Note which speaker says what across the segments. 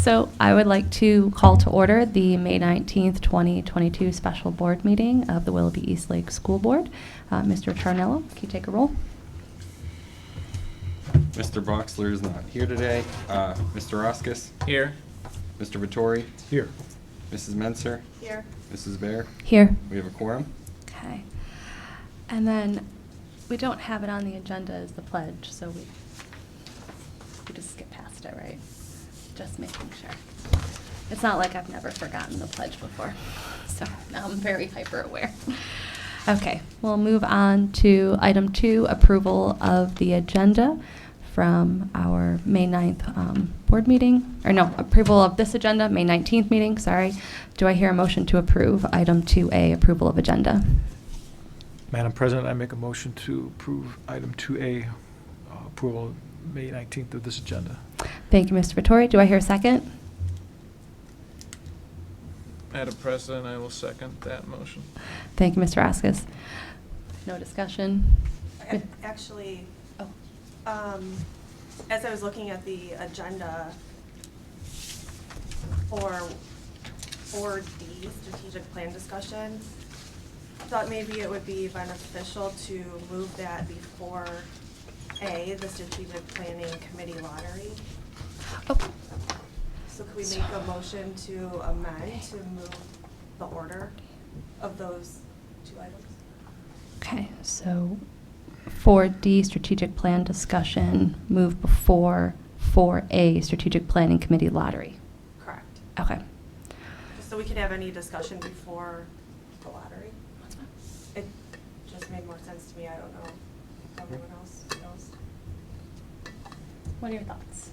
Speaker 1: So I would like to call to order the May 19th, 2022 special board meeting of the Willoughby Eastlake School Board. Uh, Mr. Charnello, can you take a roll?
Speaker 2: Mr. Boxler is not here today. Uh, Mr. Roskis,
Speaker 3: Here.
Speaker 2: Mr. Vittori,
Speaker 3: Here.
Speaker 2: Mrs. Menser,
Speaker 4: Here.
Speaker 2: Mrs. Bear.
Speaker 1: Here.
Speaker 2: We have a quorum.
Speaker 1: Okay. And then, we don't have it on the agenda as the pledge, so we, we just skip past it, right? Just making sure. It's not like I've never forgotten the pledge before, so now I'm very hyper aware. Okay, we'll move on to item two, approval of the agenda from our May 9th um, board meeting, or no, approval of this agenda, May 19th meeting, sorry. Do I hear a motion to approve item 2A, approval of agenda?
Speaker 3: Madam President, I make a motion to approve item 2A, uh, approval May 19th of this agenda.
Speaker 1: Thank you, Mr. Vittori. Do I hear a second?
Speaker 5: Madam President, I will second that motion.
Speaker 1: Thank you, Mr. Raskus. No discussion?
Speaker 4: Ac- Actually,
Speaker 1: Oh,
Speaker 4: um, as I was looking at the agenda for, for D, strategic plan discussion, thought maybe it would be beneficial to move that before A, the strategic planning committee lottery.
Speaker 1: Oh,
Speaker 4: So could we make a motion to amend to move the order of those two items?
Speaker 1: Okay, so 4D, strategic plan discussion, move before 4A, strategic planning committee lottery.
Speaker 4: Correct.
Speaker 1: Okay.
Speaker 4: Just so we can have any discussion before the lottery. It just made more sense to me, I don't know if everyone else knows.
Speaker 1: What are your thoughts?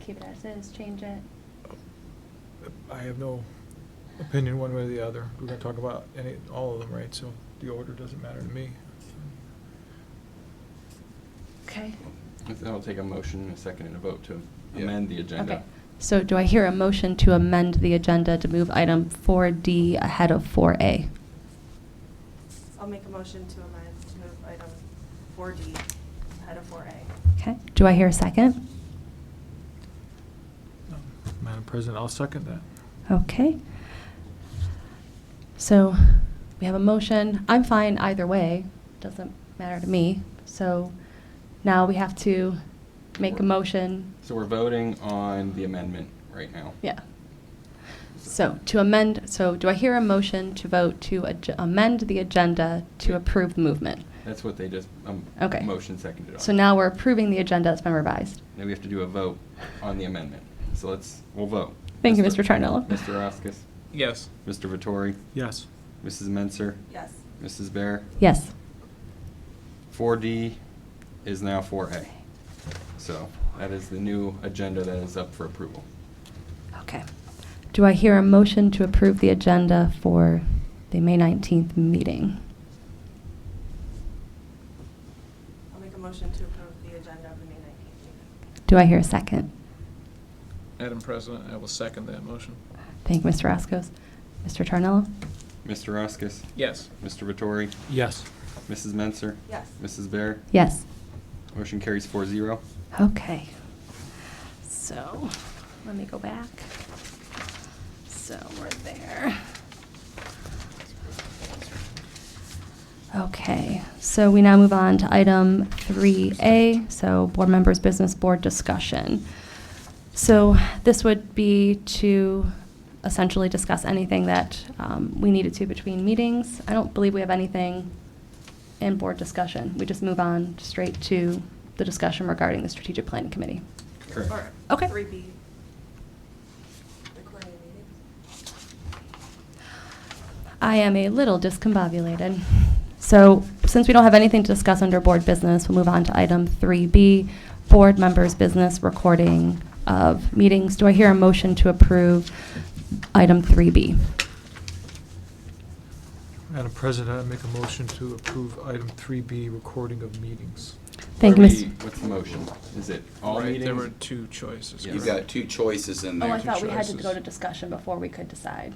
Speaker 1: Keep it as is, change it?
Speaker 3: I have no opinion one way or the other. We're going to talk about any, all of them, right? So the order doesn't matter to me.
Speaker 1: Okay.
Speaker 2: Then I'll take a motion and a second and a vote to
Speaker 3: Yeah.
Speaker 2: amend the agenda.
Speaker 1: Okay. So do I hear a motion to amend the agenda to move item 4D ahead of 4A?
Speaker 4: I'll make a motion to amend to move item four D ahead of four A.
Speaker 1: Okay, do I hear a second?
Speaker 3: Um, Madam President, I'll second that.
Speaker 1: Okay. So we have a motion. I'm fine either way. Doesn't matter to me. So now we have to make a motion.
Speaker 2: So we're voting on the amendment right now.
Speaker 1: Yeah. So to amend, so do I hear a motion to vote to adj- amend the agenda to approve the movement?
Speaker 2: That's what they just, um,
Speaker 1: Okay.
Speaker 2: motion seconded on.
Speaker 1: So now we're approving the agenda that's been revised.
Speaker 2: Now we have to do a vote on the amendment. So let's, we'll vote.
Speaker 1: Thank you, Mr. Tarnello.
Speaker 2: Mr. Roskis,
Speaker 5: Yes.
Speaker 2: Mr. Vittori,
Speaker 3: Yes.
Speaker 2: Mrs. Menser,
Speaker 4: Yes,
Speaker 2: Mrs. Bear.
Speaker 1: Yes.
Speaker 2: 4D is now 4A. So that is the new agenda that is up for approval.
Speaker 1: Okay. Do I hear a motion to approve the agenda for the May 19th meeting?
Speaker 4: I'll make a motion to approve the agenda of the May nineteenth meeting.
Speaker 1: Do I hear a second?
Speaker 5: Madam President, I will second that motion.
Speaker 1: Thank you, Mr. Roscoe. Mr. Tarnello?
Speaker 2: Mr. Roskis,
Speaker 5: Yes.
Speaker 2: Mr. Vittori,
Speaker 3: Yes.
Speaker 2: Mrs. Menser,
Speaker 4: Yes,
Speaker 2: Mrs. Bear.
Speaker 1: Yes.
Speaker 2: Motion carries 4-0.
Speaker 1: Okay. So, let me go back. So, we're there. Okay, so we now move on to item 3A, so board members' business board discussion. So this would be to essentially discuss anything that um, we needed to between meetings. I don't believe we have anything in board discussion. We just move on straight to the discussion regarding the strategic planning committee.
Speaker 2: Correct.
Speaker 4: or
Speaker 1: Okay.
Speaker 4: three B. Recording the meeting.
Speaker 1: I am a little discombobulated. So, since we don't have anything to discuss under board business, we'll move on to item 3B, board members' business recording of meetings. Do I hear a motion to approve item 3B?
Speaker 3: Madam President, I make a motion to approve item 3B, recording of meetings.
Speaker 1: Thank you,
Speaker 2: Are
Speaker 1: Ms.
Speaker 2: we- What's the motion? Is it all
Speaker 5: Right,
Speaker 2: meetings?
Speaker 5: There were two choices.
Speaker 2: Yeah.
Speaker 6: You've
Speaker 5: correct?
Speaker 6: got two choices in
Speaker 1: Oh,
Speaker 6: there.
Speaker 1: I thought we had to
Speaker 5: choices.
Speaker 1: go to discussion before we could decide.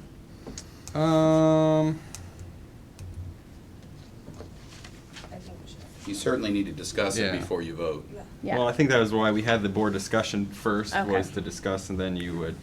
Speaker 2: Um,
Speaker 4: I think we should.
Speaker 6: you certainly need to discuss it
Speaker 2: Yeah.
Speaker 6: before you vote.
Speaker 4: Yeah.
Speaker 1: Yeah.
Speaker 2: Well, I think that was why we had the board discussion first,
Speaker 1: Okay.
Speaker 2: was to discuss, and then you would